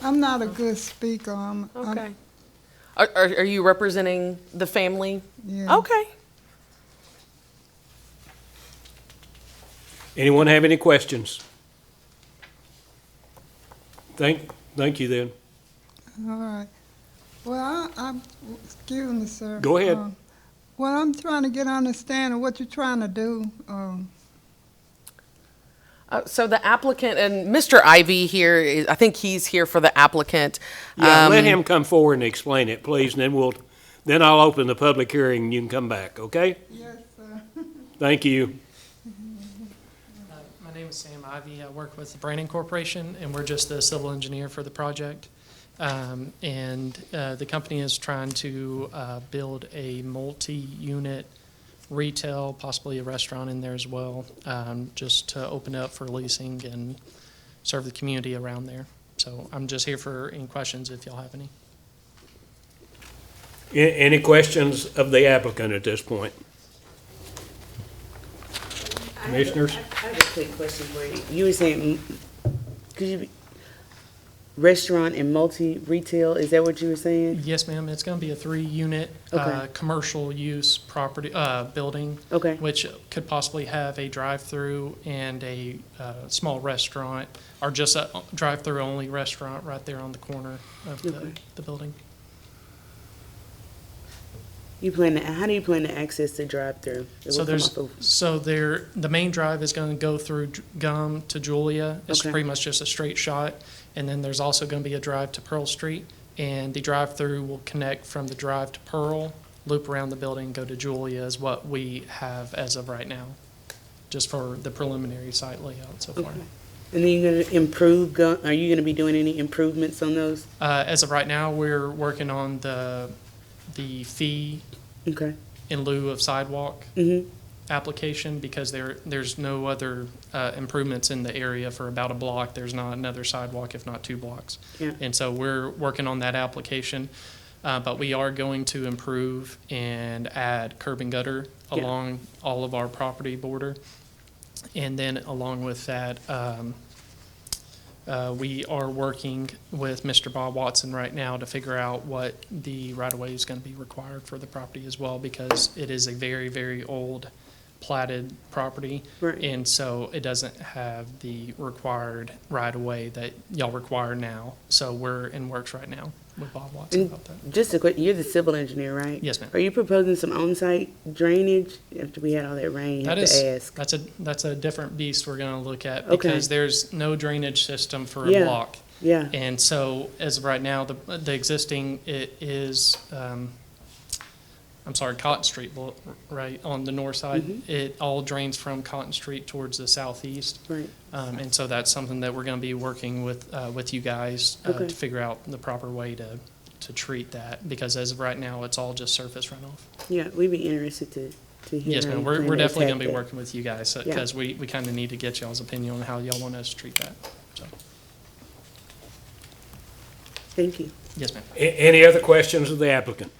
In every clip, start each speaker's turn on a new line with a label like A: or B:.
A: I'm not a good speaker. I'm, I'm-
B: Okay. Um, Are, are, are you representing the family?
A: Yeah.
B: Okay.
C: Anyone have any questions? Thank, thank you then.
A: All right. Well, I, I, excuse me, sir.
C: Go ahead.
A: Um, Well, I'm trying to get an understanding of what you're trying to do. Um,
B: Uh, so the applicant and Mr. Ivy here, is- I think he's here for the applicant.
C: Yeah, let
B: Um,
C: him come forward and explain it, please, and then we'll, then I'll open the public hearing and you can come back, okay?
A: Yes, sir.
C: Thank you.
D: Uh, My name is Sam Ivy. I work with the Brandon Corporation, and we're just the civil engineer for the project. Um, And uh, the company is trying to uh, build a multi-unit retail, possibly a restaurant in there as well, um, just to open up for leasing and serve the community around there. So I'm just here for any questions if y'all have any.
C: A- Any questions of the applicant at this point? Commissioners?
E: I have a quick question for you. You were saying, mm, could you, be- restaurant and multi-retail, is that what you were saying?
D: Yes, ma'am, it's going to be a three-unit,
E: Okay.
D: uh, commercial use property, uh, building.
E: Okay,
D: which could possibly have a drive-through and a uh, small restaurant, or just a drive-through only restaurant right there on the corner of the,
E: Okay.
D: the building.
E: you plan to, how do you plan to access the drive-through? It will
D: So
E: come
D: there's,
E: off of-
D: so there, the main drive is gonna go through J- Gum to Julia. It's
E: Okay.
D: pretty much just a straight shot. And then there's also gonna be a drive to Pearl Street, and the drive-through will connect from the drive to Pearl, loop around the building, go to Julia is what we have as of right now, just for the preliminary site layout so far.
E: Okay. And then you're gonna improve, go- are you gonna be doing any improvements on those?
D: Uh, as of right now, we're working on the, the fee
E: Okay,
D: in lieu of sidewalk
E: mm-hmm,
D: application because there, there's no other, uh, improvements in the area for about a block. There's not another sidewalk, if not two blocks.
E: yeah,
D: And so we're working on that application, uh, but we are going to improve and add curb and gutter
E: Yeah.
D: along all of our property border. And then along with that, um, uh, we are working with Mr. Bob Watson right now to figure out what the right-of-way is gonna be required for the property as well, because it is a very, very old platted property.
E: right,
D: And so it doesn't have the required right of way that y'all require now. So we're in works right now with Bob Watson
E: And-
D: about that.
E: just a quick, you're the civil engineer, right?
D: Yes, ma'am.
E: Are you proposing some on-site drainage after we had all that rain? I
D: That
E: have
D: is-
E: to ask.
D: That's a, that's a different beast we're gonna look at
E: Okay.
D: because there's no drainage system for a
E: Yeah.
D: block.
E: Yeah,
D: And so as of right now, the, the existing, it is, um, I'm sorry, Cotton Street, blo- right, on the north
E: Mm-hmm.
D: side. It all drains from Cotton Street towards the southeast.
E: right,
D: Um, and so that's something that we're going to be working with, uh, with you guys uh,
E: Okay.
D: to figure out the proper way to, to treat that. Because as of right now, it's all just surface runoff.
E: yeah, we'd be interested to, to hear.
D: Yes,
E: how
D: ma'am,
E: you
D: we're,
E: plan
D: we're
E: to
D: definitely
E: attack
D: going to be
E: that.
D: working with you guys
E: Yeah.
D: because we, we kind of need to get y'all's opinion on how y'all want us to treat that. So,
E: Thank you.
D: yes, ma'am.
C: A- Any other questions of the applicant?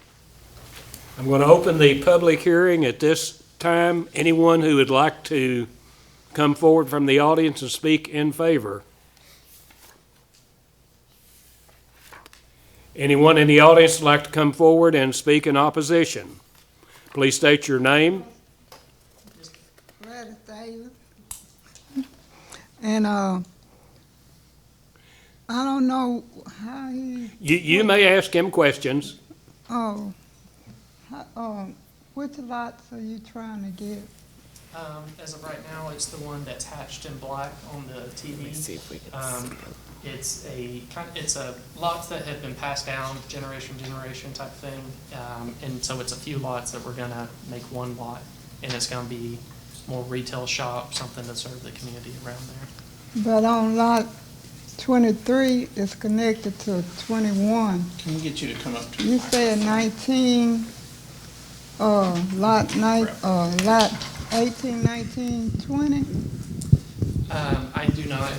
C: I'm going to open the public hearing at this time. Anyone who would like to come forward from the audience and speak in favor? Anyone in the audience would like to come forward and speak in opposition? Please state your name.
A: Gladys Davis. And, uh, I don't know how he,
C: You, you may ask him questions.
A: oh, how, um, which lots are you trying to get?
D: Um, as of right now, it's the one that's hatched in black on the TV.
B: See if we can
D: Um, It's a, kind- it's a lots that have been passed down generation, to generation type thing. Um, and so it's a few lots that we're gonna make one lot. And it's gonna be more retail shop, something to serve the community around there.
A: But on lot twenty-three is connected to twenty-one.
F: Can we get you to come up to? the
A: You said nineteen, uh, lot nine, uh, lot eighteen, nineteen, twenty?
D: Um, I do not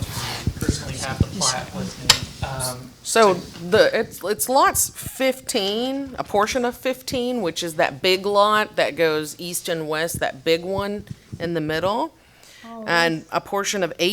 D: personally have the plat with me. Um,
B: So the, it's, it's lots 15, a portion of 15, which is that big lot
A: Oh.
B: that Uh, goes east and west, that big one in the middle. And a portion of 8